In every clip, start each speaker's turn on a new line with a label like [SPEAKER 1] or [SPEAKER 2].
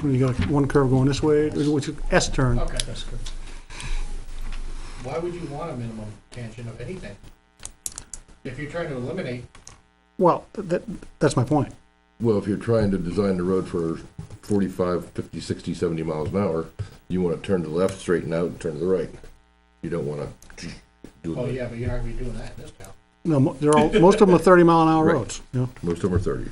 [SPEAKER 1] when you got one curve going this way, which is S turn.
[SPEAKER 2] Okay. That's good. Why would you want a minimum tangent of anything? If you're trying to eliminate,
[SPEAKER 1] Well, th- that, that's my point.
[SPEAKER 3] Well, if you're trying to design the road for 45, 50, 60, 70 miles an hour, you want to turn to the left, straighten out, and turn to the right. You don't want to do
[SPEAKER 2] oh
[SPEAKER 3] that.
[SPEAKER 2] yeah, but you're not gonna be doing that in this town.
[SPEAKER 1] No, mo- they're all, most of them are thirty mile an hour
[SPEAKER 3] Right.
[SPEAKER 1] roads, you know?
[SPEAKER 3] Most of them are 30.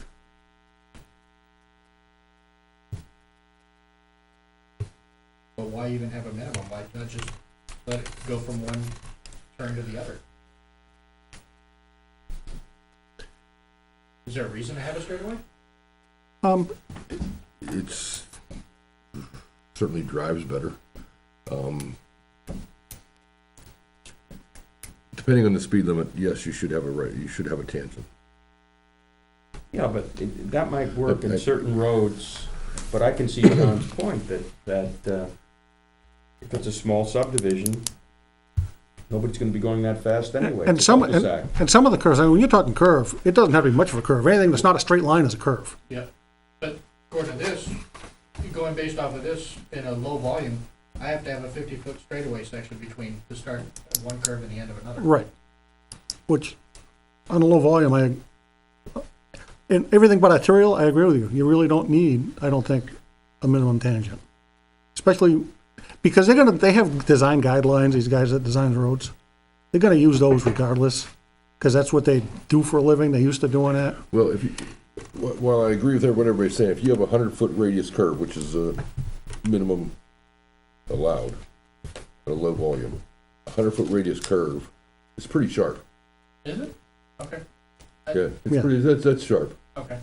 [SPEAKER 2] But why even have a minimum? Why not just let it go from one turn to the other? Is there a reason to have a straightaway?
[SPEAKER 1] Um,
[SPEAKER 3] It's certainly drives better. Um, Depending on the speed limit, yes, you should have a right, you should have a tangent.
[SPEAKER 4] Yeah, but it- that might work
[SPEAKER 3] Okay.
[SPEAKER 4] in certain roads, but I can see John's point that, that, uh, if it's a small subdivision, nobody's gonna be going that fast anyway.
[SPEAKER 1] and
[SPEAKER 4] It's a
[SPEAKER 1] some, and,
[SPEAKER 4] cul-de-sac.
[SPEAKER 1] and some of the curves, I mean, when you're talking curve, it doesn't have to be much of a curve. Anything that's not a straight line is a curve.
[SPEAKER 2] Yeah, but according to this, going based off of this, in a low volume, I have to have a fifty-foot straightaway section between the start of one curve and the end of another.
[SPEAKER 1] Right. Which, on a low volume, I, in everything but arterial, I agree with you. You really don't need, I don't think, a minimum tangent. Especially, because they're gonna, they have design guidelines, these guys that design roads. They're gonna use those regardless, because that's what they do for a living. They used to doing that.
[SPEAKER 3] Well, if you, wh- while I agree with what everybody's saying, if you have a hundred-foot radius curve, which is a minimum allowed at a low volume, a hundred-foot radius curve, it's pretty sharp.
[SPEAKER 2] Is it? Okay,
[SPEAKER 3] Yeah, it's
[SPEAKER 1] Yeah.
[SPEAKER 3] pretty, that's, that's sharp.
[SPEAKER 2] okay.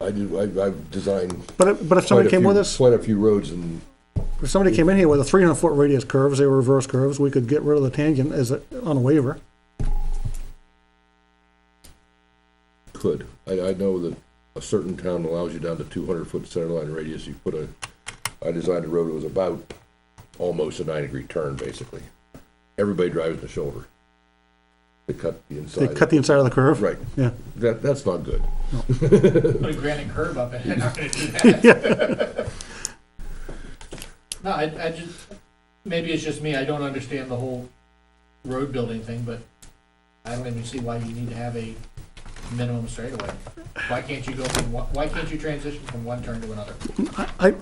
[SPEAKER 3] I do, I, I've designed
[SPEAKER 1] But, if- but if
[SPEAKER 3] quite
[SPEAKER 1] somebody
[SPEAKER 3] a
[SPEAKER 1] came with
[SPEAKER 3] few,
[SPEAKER 1] us,
[SPEAKER 3] quite a few roads and
[SPEAKER 1] if somebody came in here with a three hundred foot radius curves, they were reverse curves, we could get rid of the tangent as, a- on a waiver.
[SPEAKER 3] could. I, I know that a certain town allows you down to two hundred-foot center line radius, you put a, I designed a road that was about almost a nine-degree turn, basically. Everybody drives the shoulder. They cut the
[SPEAKER 1] They
[SPEAKER 3] inside.
[SPEAKER 1] cut the inside of the curve.
[SPEAKER 3] Right,
[SPEAKER 1] Yeah.
[SPEAKER 3] that, that's not good.
[SPEAKER 2] Put a granite curve up in it, not gonna do that. No, I, I just, maybe it's just me, I don't understand the whole road building thing, but I don't even see why you need to have a minimum straightaway. Why can't you go from, one- why can't you transition from one turn to another?
[SPEAKER 1] I,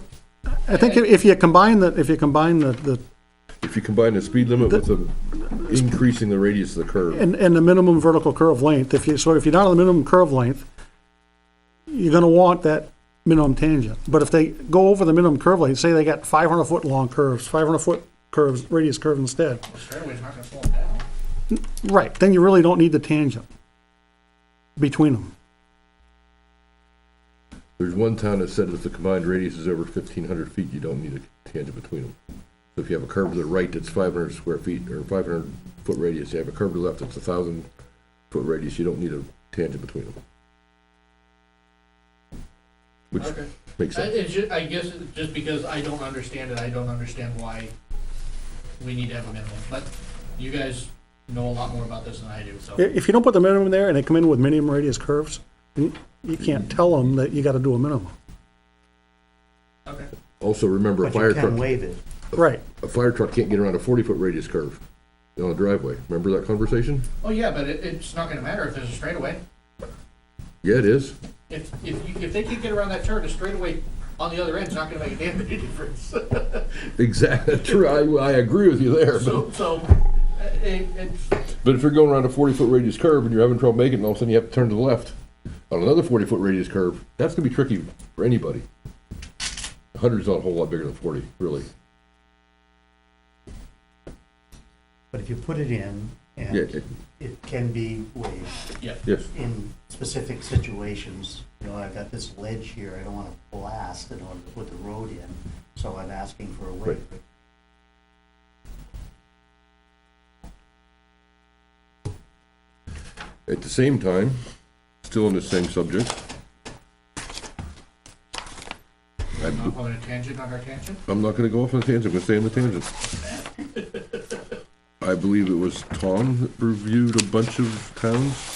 [SPEAKER 1] I think if you combine the, if you combine the, the,
[SPEAKER 3] If you combine the speed limit with the increasing the radius of the curve,
[SPEAKER 1] and, and the minimum vertical curve length, if you, so if you're not on the minimum curve length, you're gonna want that minimum tangent. But if they go over the minimum curve length, say they got five hundred foot long curves, five hundred foot curves, radius curves instead,
[SPEAKER 2] The straightaway's not gonna slow them down.
[SPEAKER 1] right, then you really don't need the tangent between them.
[SPEAKER 3] there's one town that said if the combined radius is over fifteen hundred feet, you don't need a tangent between them. So if you have a curve to the right that's five hundred square feet or five hundred foot radius, you have a curve to the left that's a thousand foot radius, you don't need a tangent between them. Which
[SPEAKER 2] Okay.
[SPEAKER 3] makes
[SPEAKER 2] I,
[SPEAKER 3] sense.
[SPEAKER 2] it's ju- I guess it's just because I don't understand it, I don't understand why we need to have a minimum, but you guys know a lot more about this than I do, so.
[SPEAKER 1] I- If you don't put the minimum there and they come in with minimum radius curves, you you can't tell them that you gotta do a minimum.
[SPEAKER 2] Okay.
[SPEAKER 3] Also, remember, a
[SPEAKER 5] But you
[SPEAKER 3] fire
[SPEAKER 5] can
[SPEAKER 3] truck,
[SPEAKER 5] waive it.
[SPEAKER 1] Right,
[SPEAKER 3] a fire truck can't get around a forty-foot radius curve on a driveway. Remember that conversation?
[SPEAKER 2] Oh, yeah, but it, it's not gonna matter if there's a straightaway.
[SPEAKER 3] Yeah, it is.
[SPEAKER 2] If, if, you- if they can get around that turn, a straightaway on the other end's not gonna make a damn bit of difference.
[SPEAKER 3] Exactly, true, I, I agree with you there, but,
[SPEAKER 2] So, so, uh, it, it's,
[SPEAKER 3] but if you're going around a forty-foot radius curve and you're having trouble making it, and all of a sudden you have to turn to the left on another forty-foot radius curve, that's gonna be tricky for anybody. A Hundred's not a whole lot bigger than forty, really.
[SPEAKER 5] But if you put it in,
[SPEAKER 3] Yeah,
[SPEAKER 5] and
[SPEAKER 3] it-
[SPEAKER 5] it can be waived
[SPEAKER 2] yeah,
[SPEAKER 3] yes,
[SPEAKER 5] in specific situations, you know, I've got this ledge here, I don't want to blast in order to put the road in, so I'm asking for a waiver.
[SPEAKER 3] at the same time, still on the same subject,
[SPEAKER 2] I'm not on a tangent on our tangent.
[SPEAKER 3] I'm not gonna go off on a tangent, I'm gonna stay on the tangent. I believe it was Tom that reviewed a bunch of towns